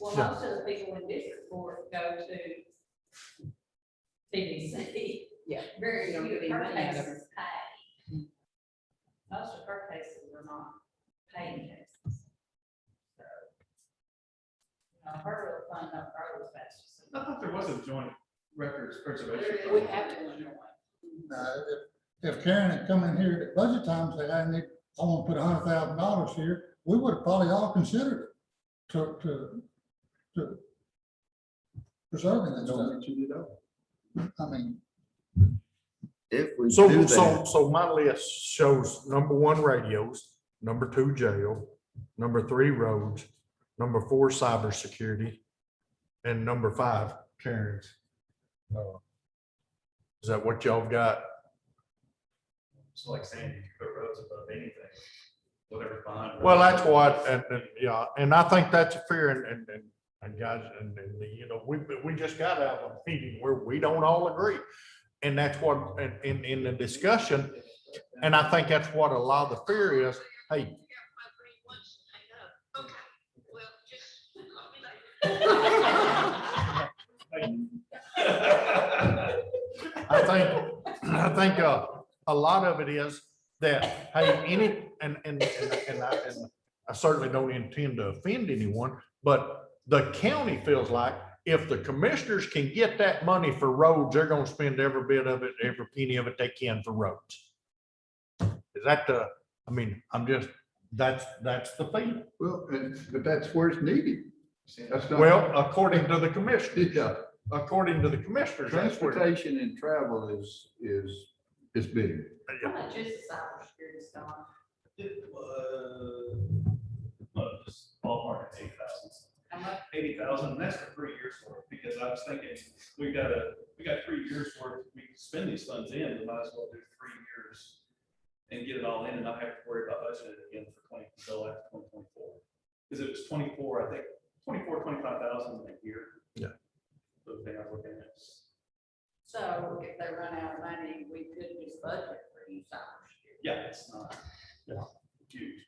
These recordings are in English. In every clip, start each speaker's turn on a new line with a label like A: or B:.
A: Well,
B: Yeah.
A: most of the people in district court go to CDC.
C: Yeah.
A: Very
C: You don't
A: few
C: get
A: of her
C: any money out of
A: cases pay. Most of her cases are not paying cases. So, You know, her real fund, not her was
D: I
A: fast.
D: thought there was a joint records preservation.
A: We have to win one.
E: Now, if, if Karen had come in here at budget time and said, I need, I want to put a hundred thousand dollars here, we would have probably all considered it to, to, to preserving that stuff. I mean,
F: If we do
B: So, so,
F: that,
B: so my list shows number one radios, number two jail, number three roads, number four cybersecurity, and number five Karen's. Uh, Is that what y'all got?
D: It's like saying you can put roads above anything, whatever bond.
B: Well, that's what, and, and, yeah, and I think that's a fair and, and, and, and guys, and, and, you know, we, we just got out of a meeting where we don't all agree. And that's what, and, in, in the discussion, and I think that's what a lot of the fear is, hey, I think, I think uh, a lot of it is that, hey, any, and, and, and and I, and I certainly don't intend to offend anyone, but the county feels like if the commissioners can get that money for roads, they're gonna spend every bit of it, every penny of it they can for roads. Is that the, I mean, I'm just, that's, that's the feeling.
G: Well, and, but that's where it's needed. That's not.
B: Well, according to the commissioners,
G: Yeah,
B: according to the commissioners, that's where.
G: transportation and travel is, is, is big.
A: How much is the cybersecurity stuff?
D: It was, well, just ballpark, eight thousand.
A: How much?
D: eighty thousand, and that's for three years worth, because I was thinking, we got a, we got three years worth, we can spend these funds in, we might as well do three years and get it all in and not have to worry about budgeting again for twenty, until after twenty twenty-four. Because it was twenty-four, I think, twenty-four, twenty-five thousand a year.
B: Yeah.
D: The thing I'm looking at is,
A: So if they run out of money, we could just budget for you cybersecurity.
D: yeah, it's not.
B: Yeah.
D: Huge.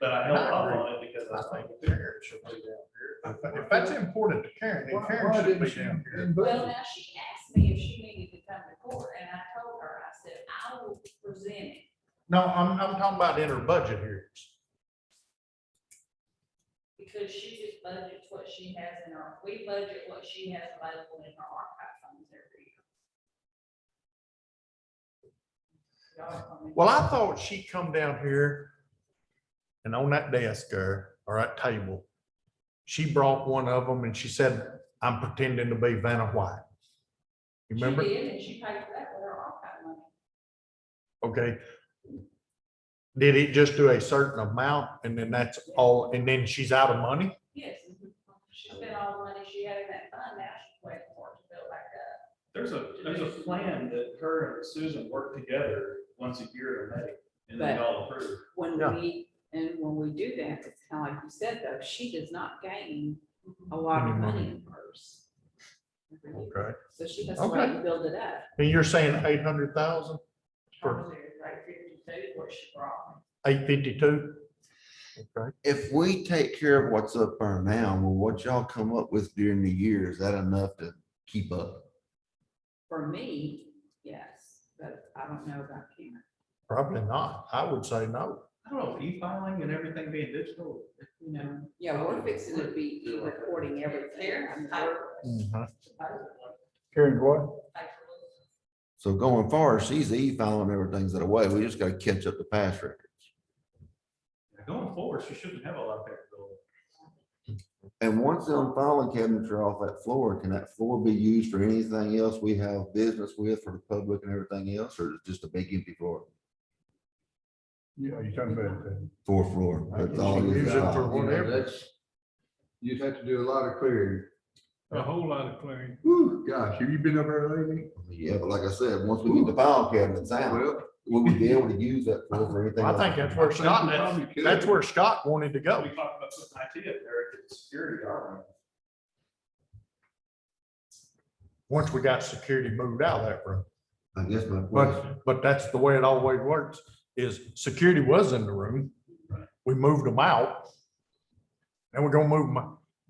D: But I held up on it because I
B: I
D: was
B: think
D: like,
B: Karen should be down here. If- If that's important to Karen, then
G: Why-
B: Karen
G: why
B: should
G: didn't
B: be
G: she-
B: down here.
G: didn't budget?
A: Well, now she asked me if she needed to come to court and I told her, I said, I will present it.
B: No, I'm, I'm talking about in her budget hearings.
A: Because she just budgets what she has in her, we budget what she has available in her archive funds every year. Y'all tell me.
B: Well, I thought she'd come down here and on that desk or, or that table, she brought one of them and she said, I'm pretending to be Vanna White. You Remember?
A: She did and she paid for that with her archive money.
B: Okay. Did it just do a certain amount and then that's all, and then she's out of money?
A: Yes. She spent all the money she had in that fund, now she's waiting for it to build back up.
D: there's a, there's a plan that her and Susan work together once a year in May, and they
C: But-
D: all approve.
C: When
B: Yeah.
C: we, and when we do that, it's kind of like you said, though, she does not gain
B: Mm-hmm.
C: a lot of
B: Any money.
C: money in hers.
B: Okay.
C: So she has to wait and build it up.
B: And you're saying eight hundred thousand,
A: Probably like fifty-two, what she brought me.
B: eight fifty-two? Okay.
F: if we take care of what's up there now, well, what y'all come up with during the year, is that enough to keep up?
C: For me, yes, but I don't know about Karen.
B: Probably not. I would say no.
D: I don't know, e-filing and everything being digital.
C: You know, yeah, we're fixing to be recording everything. I mean, we're-
B: Mm-hmm. Karen, what?
F: So going forward, she's e-filing everything's that away. We just gotta catch up the past record.
D: Going forward, she shouldn't have a lot of paperwork.
F: And once them filing cabinets are off that floor, can that floor be used for anything else we have business with for the public and everything else, or is it just a big empty floor?
B: Yeah, you're talking about that.
F: Four floor. that's all
B: You can
F: it's
B: use it
F: got.
B: for
G: You know,
B: whatever.
G: that's- You'd have to do a lot of clearing.
H: A whole lot of clearing.
G: Whew, gosh, have you been up there lately?
F: Yeah, but like I said, once we get the file cabinets out,
G: Well,
F: will we be able to use that floor for anything?
B: I
F: else?
B: think that's where
G: think
B: Scott,
G: we
B: that's,
G: probably could.
B: that's where Scott wanted to go.
D: We talked about some IT up there, get the security guard.
B: Once we got security moved out of that room.
F: I guess my question,
B: But, but that's the way it always works, is security was in the room. We moved them out. And we're gonna move them,